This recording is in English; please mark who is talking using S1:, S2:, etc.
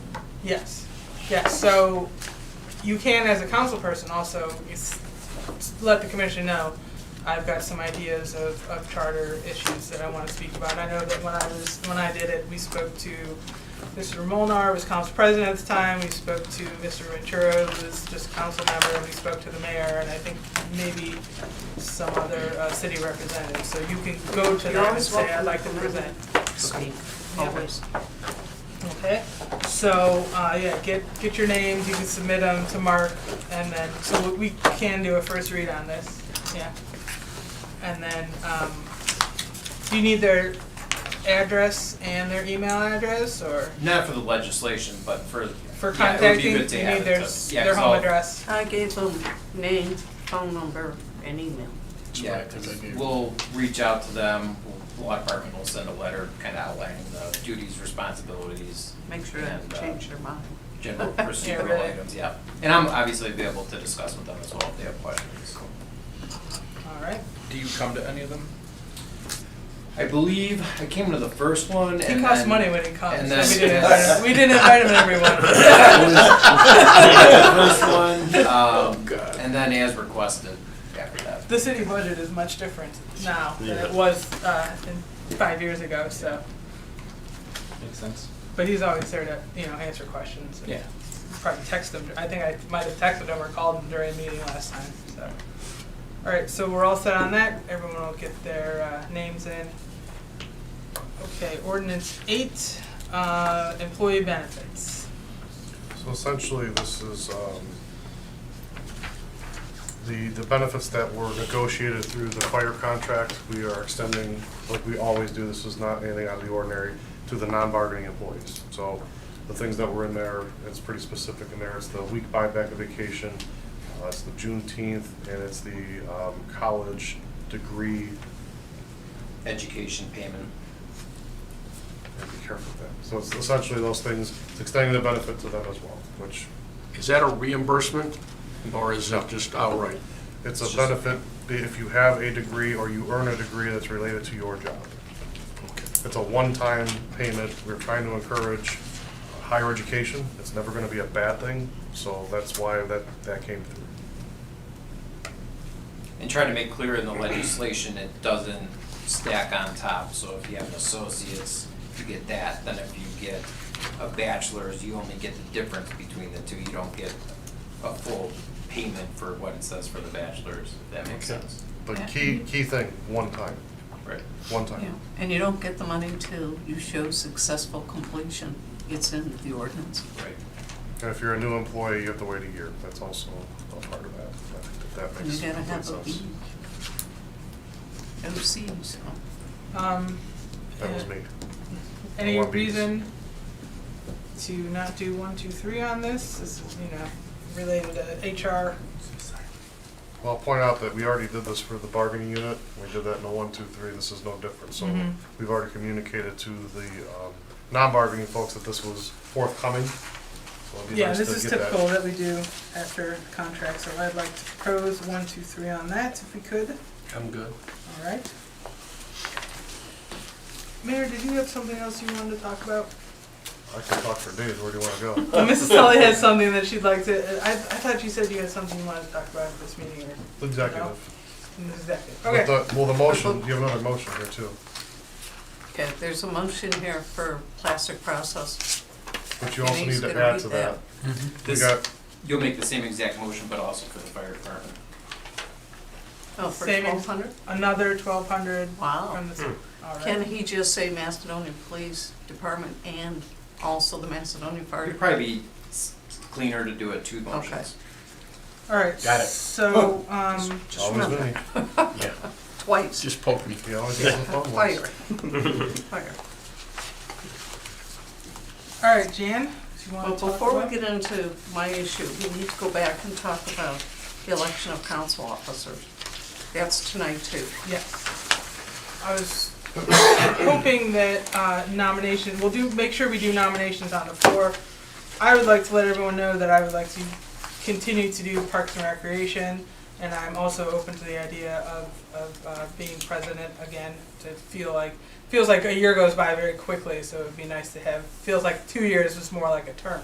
S1: Yes, yes, so you can, as a council person, also s- s- let the commission know, I've got some ideas of, of charter issues that I want to speak about. I know that when I was, when I did it, we spoke to Mr. Molnar, who was council president at the time, we spoke to Mr. Ventura, who was just council member, and we spoke to the mayor, and I think maybe some other uh, city representative. So you can go to
S2: You're
S1: them and
S2: always
S1: say, I'd
S2: welcome
S1: like to
S2: to come in."
S1: present.
S2: Speak,
S1: Yeah.
S2: always.
S1: Okay, so, uh, yeah, get, get your names, you can submit them to Mark, and then, so we we can do a first read on this, yeah. And then, um, do you need their address and their email address, or
S3: Not for the legislation, but for.
S1: for
S3: yeah, it would be
S1: contacting, you
S3: good
S1: need
S3: to have it
S1: their,
S3: to- yeah,
S1: their
S3: 'cause
S1: home
S3: I'll-
S1: address?
S2: I gave them name, phone number, and email.
S3: Yeah, 'cause we'll reach out to them, the law department will send a letter kind of outlining the duties, responsibilities,
S2: Make sure I
S3: And, uh,
S2: change their mind.
S3: general
S1: Yeah,
S3: procedural
S1: right.
S3: items, yeah. And I'm obviously be able to discuss with them as well if they have questions.
S1: All right,
S4: Do you come to any of them?
S3: I believe I came to the first one and
S1: it costs
S3: then-
S1: money when it comes,
S3: and
S1: so
S3: then-
S1: we didn't, invite 'em- we didn't invite them, everyone.
S3: First one, um, and then as requested after that.
S1: The city budget is much different now than it was, uh, in five years ago, so.
S4: Makes sense.
S1: But he's always there to, you know, answer questions. and
S4: Yeah.
S1: Probably text him. I think I might have texted him or called him during the meeting last time, so. All right, so we're all set on that. Everyone will get their uh, names in. Okay, ordinance eight, uh, employee benefits.
S5: So essentially, this is um, the, the benefits that were negotiated through the fire contract, we are extending, like we always do, this is not anything out of the ordinary, to the non-bargaining employees. So the things that were in there, it's pretty specific in there, it's the week buyback of vacation, uh, it's the Juneteenth, and it's the um, college degree,
S3: Education payment.
S5: and be careful with that. So it's essentially those things, it's extending the benefit to them as well, which
S6: Is that a reimbursement, or is it just outright?
S5: It's a benefit if you have a degree or you earn a degree that's related to your job. It's a one-time payment. We're trying to encourage higher education. It's never going to be a bad thing, so that's why that, that came through.
S3: And trying to make clear in the legislation, it doesn't stack on top, so if you have an associate's, you get that, then if you get a bachelor's, you only get the difference between the two, you don't get a full payment for what it says for the bachelor's, if that makes sense.
S5: But key, key thing, one time,
S3: Right.
S5: one
S2: Yeah,
S5: time.
S2: and you don't get the money till you show successful completion. It's in the ordinance.
S3: Right.
S5: And if you're a new employee, you have to wait a year. That's also a part of that, if that
S2: And
S5: makes
S2: you gotta
S5: complete
S2: have a B.
S5: sense.
S2: O C, so.
S1: Um,
S5: That was me.
S1: Any
S5: One piece.
S1: reason to not do one, two, three on this? This is, you know, related to HR.
S5: Well, I'll point out that we already did this for the bargaining unit. We did that in a one, two, three. This is no different. So
S1: Mhm.
S5: we've already communicated to the um, non-bargaining folks that this was forthcoming. So it'd be
S1: Yeah,
S5: nice
S1: this
S5: to
S1: is
S5: get that.
S1: typical that we do after contract, so I'd like to propose one, two, three on that if we could,
S6: I'm good.
S1: all right? Mayor, did you have something else you wanted to talk about?
S5: I can talk for days. Where do you want to go?
S1: Well, Mrs. Tully has something that she'd like to, I, I thought you said you had something you wanted to talk about at this meeting or
S5: The Executive.
S1: in the executive.
S5: With
S1: Okay,
S5: the- Well, the motion, you have another motion here too,
S2: Okay, there's a motion here for plastic process.
S5: but you also
S2: Denise
S5: need to
S2: gonna
S5: add
S2: read
S5: to that.
S2: that.
S5: We
S3: This-
S5: got,
S3: You'll make the same exact motion, but also for the fire department.
S2: Oh, for
S1: Same
S2: twelve
S1: ex-
S2: hundred?
S1: another twelve hundred
S2: Wow.
S1: from
S5: Hmm.
S1: the, all
S2: Can
S1: right.
S2: he just say Macedonia Police Department and also the Macedonia Fire?
S3: It'd probably be s- cleaner to do it two motions.
S1: All right,
S6: Got it.
S1: so,
S5: Oh.
S1: um,
S2: Just
S5: always
S2: remember,
S5: me.
S6: Yeah.
S2: twice,
S6: Just poke me.
S5: He always has the fun ones.
S2: fire, fire.
S1: all right, Jan, do you
S2: Well,
S1: want to talk
S2: before we
S1: about?
S2: get into my issue, we need to go back and talk about the election of council officers. That's tonight too.
S1: Yes. I was hoping that uh, nomination, we'll do, make sure we do nominations on the floor. I would like to let everyone know that I would like to continue to do Parks and Recreation, and I'm also open to the idea of, of uh, being president again, to feel like, feels like a year goes by very quickly, so it'd be nice to have, feels like two years is more like a term.